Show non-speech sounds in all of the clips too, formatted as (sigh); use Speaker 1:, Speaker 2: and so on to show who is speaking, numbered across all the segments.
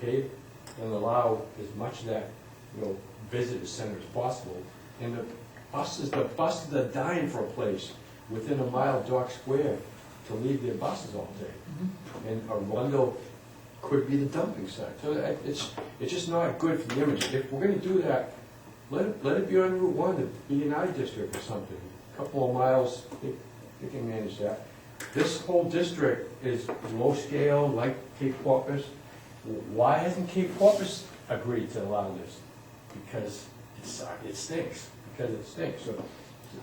Speaker 1: paved and allow as much of that, you know, visitor center as possible. And the buses, the buses are dying for a place within a mile of Dock Square to leave their buses all day. And Arundel could be the dumping site. So that- it's, it's just not good for the image. If we're gonna do that, let it, let it be on Route One, the B and I district or something. Couple of miles, they, they can manage that. This whole district is low scale, like Cape Porpoise. Why hasn't Cape Porpoise agreed to allow this? Because it's, it stinks, because it stinks. So,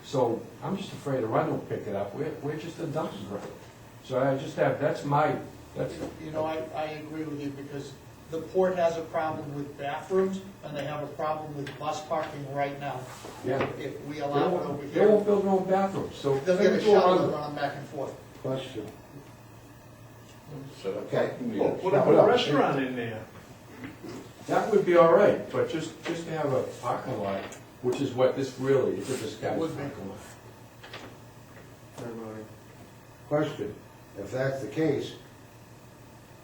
Speaker 1: so I'm just afraid Arundel will pick it up. We're, we're just a dumpster ground. So I just have, that's my, that's,
Speaker 2: You know, I, I agree with you, because the port has a problem with bathrooms, and they have a problem with bus parking right now.
Speaker 1: yeah.
Speaker 2: If we
Speaker 1: They
Speaker 2: allow it over
Speaker 1: won't, they
Speaker 2: here,
Speaker 1: won't build their own bathrooms, so.
Speaker 2: they'll get a
Speaker 1: Go
Speaker 2: shuttle
Speaker 1: on.
Speaker 2: to run back and forth.
Speaker 3: Question.
Speaker 4: Set up
Speaker 3: Okay. Oh,
Speaker 4: parking
Speaker 5: Well,
Speaker 4: meters.
Speaker 5: Put a
Speaker 3: Well,
Speaker 5: good restaurant in there.
Speaker 1: That would be all right, but just, just to have a parking lot, which is what this really is, it's a scattered
Speaker 2: Would be.
Speaker 1: parking lot.
Speaker 3: Question. If that's the case,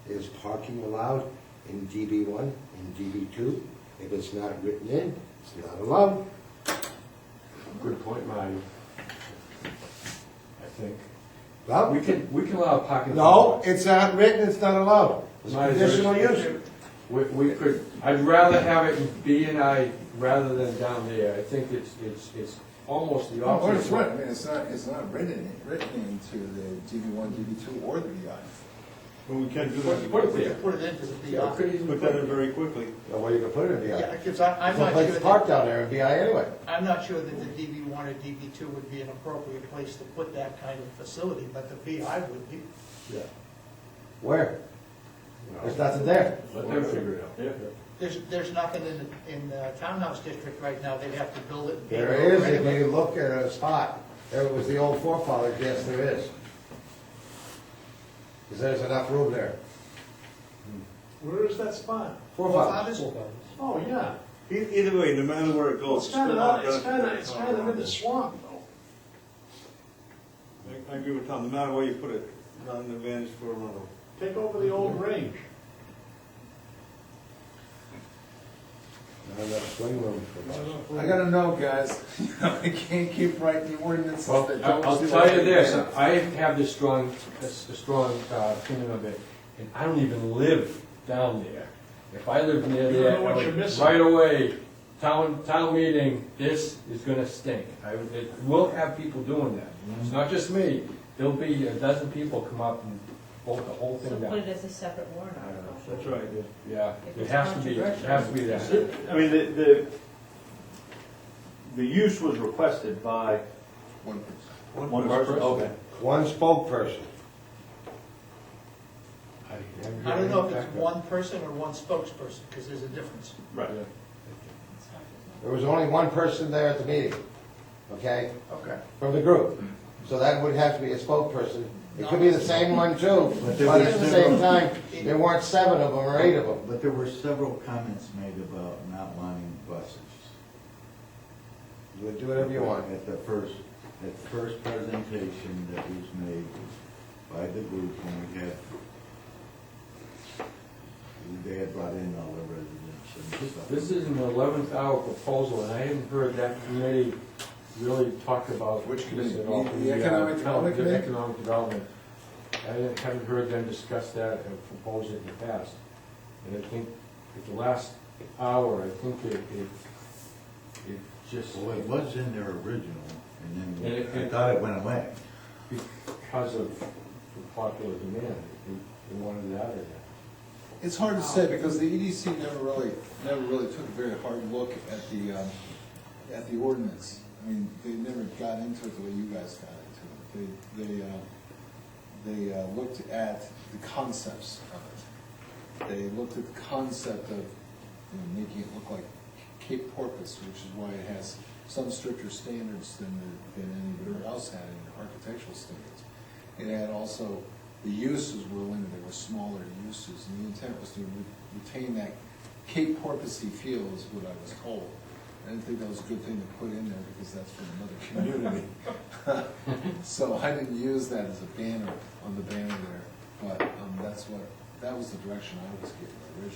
Speaker 3: is parking allowed in DB one and DB two? If it's not written in, it's not allowed.
Speaker 1: Good point, Marty. I think. We
Speaker 3: Well,
Speaker 1: can, we can allow parking.
Speaker 3: no, it's not written, it's not allowed. It's
Speaker 1: Might as
Speaker 3: conditional
Speaker 1: well-
Speaker 3: use.
Speaker 1: We, we could, I'd rather have it in B and I rather than down there. I think it's, it's, it's almost
Speaker 3: Oh,
Speaker 1: the
Speaker 4: Or it's
Speaker 1: opposite.
Speaker 4: written, oh, it's not, it's not written, written into the DB one, DB two, or the BI.
Speaker 6: Well, we can do
Speaker 1: Put
Speaker 6: that,
Speaker 1: put it
Speaker 2: We could
Speaker 1: there.
Speaker 2: put it into the
Speaker 1: Yeah,
Speaker 2: BR.
Speaker 1: could easily
Speaker 6: put that in
Speaker 1: put it.
Speaker 6: very quickly.
Speaker 3: No way you can put it in
Speaker 2: Yeah,
Speaker 3: BI.
Speaker 2: because I, I'm
Speaker 3: Some
Speaker 2: not
Speaker 3: place
Speaker 2: sure that,
Speaker 3: to park down there in BI anyway.
Speaker 2: I'm not sure that the DB one or DB two would be an appropriate place to put that kind of facility, but the BI would be.
Speaker 1: Yeah.
Speaker 3: Where? There's
Speaker 1: Well,
Speaker 3: nothing there.
Speaker 1: Let them figure it out.
Speaker 6: Yeah.
Speaker 2: There's, there's nothing in, in the townhouse district right now, they'd have to build it. and pay
Speaker 3: There
Speaker 2: for it
Speaker 3: is, if
Speaker 2: anyway.
Speaker 3: you look at a spot, there was the old forefathers, yes, there is. Because there's enough room there.
Speaker 5: Where is that spot?
Speaker 3: Forefathers.
Speaker 5: Oh, yeah.
Speaker 6: E- Either way, no matter where it goes.
Speaker 5: It's kind
Speaker 6: still not
Speaker 5: of, it's
Speaker 6: gonna-
Speaker 5: kind of, it's kind of in the swamp, though.
Speaker 6: I- I agree with Tom, no matter where you put it, not an advantage for Arundel.
Speaker 5: Take over the old range.
Speaker 3: Not enough swing room for us.
Speaker 4: I gotta know, guys, (laughs) you know, I can't keep writing the ordinances
Speaker 1: Well,
Speaker 4: that
Speaker 1: I-
Speaker 4: don't.
Speaker 1: I'll
Speaker 4: do
Speaker 1: tell you
Speaker 4: it.
Speaker 1: this, I have this strong, this this strong uh, opinion of it, and I don't even live down there. If I lived near
Speaker 5: You don't
Speaker 1: there,
Speaker 5: know
Speaker 1: I
Speaker 5: what you're
Speaker 1: would-
Speaker 5: missing.
Speaker 1: right away, town, town meeting, this is gonna stink. I would- it- We'll have people doing that. It's not just me, there'll be a dozen people come up and vote the whole
Speaker 7: So
Speaker 1: thing
Speaker 7: put
Speaker 1: down.
Speaker 7: it as a separate warrant
Speaker 1: I don't know.
Speaker 7: article.
Speaker 6: That's right, yeah.
Speaker 1: Yeah, it has to be, it has to be that.
Speaker 8: I mean, the, the, the use was requested by
Speaker 4: One person.
Speaker 8: one person, okay.
Speaker 3: One spokesperson.
Speaker 2: I don't know if it's one person or one spokesperson, because there's a difference.
Speaker 8: Right.
Speaker 3: There was only one person there at the meeting, okay,
Speaker 2: Okay.
Speaker 3: from the group. So that would have to be a spokesperson. It could be the same one too, but at the same time, there weren't seven of them or eight of them.
Speaker 9: But there were several comments made about not wanting buses.
Speaker 3: You would do whatever you want.
Speaker 9: At the first, at the first presentation that was made by the group, and we had, they had brought in all the residents and stuff.
Speaker 1: This is an eleventh hour proposal, and I haven't heard that committee really talk about.
Speaker 4: Which
Speaker 1: this
Speaker 4: committee?
Speaker 1: at all.
Speaker 4: The- the Economic
Speaker 1: uh,
Speaker 4: Development
Speaker 1: the
Speaker 4: Committee?
Speaker 1: Economic Development. I haven't- haven't heard them discuss that and propose it in the past. And I think at the last hour, I think it, it, it just,
Speaker 9: Well, it was in their original, and
Speaker 1: And it-
Speaker 9: then I thought it went away.
Speaker 1: because of the popular demand, they- they wanted it out of there.
Speaker 4: It's hard to say, because the EDC never really, never really took a very hard look at the, um, at the ordinance. I mean, they never got into it the way you guys got into it. They, they, uh, they uh, looked at the concepts of it. They looked at the concept of, you know, making it look like Cape Porpoise, which is why it has some stricter standards than, the- than anywhere else had in architectural standards. It had also, the uses were limited, they were smaller uses, and the intent was to re- retain that Cape Porpoisey feel is what I was told. I didn't think that was a good thing to put in there, because that's from another community. (laughs) So I didn't use that as a banner on the banner there, but um, that's what, that was the direction I was given originally.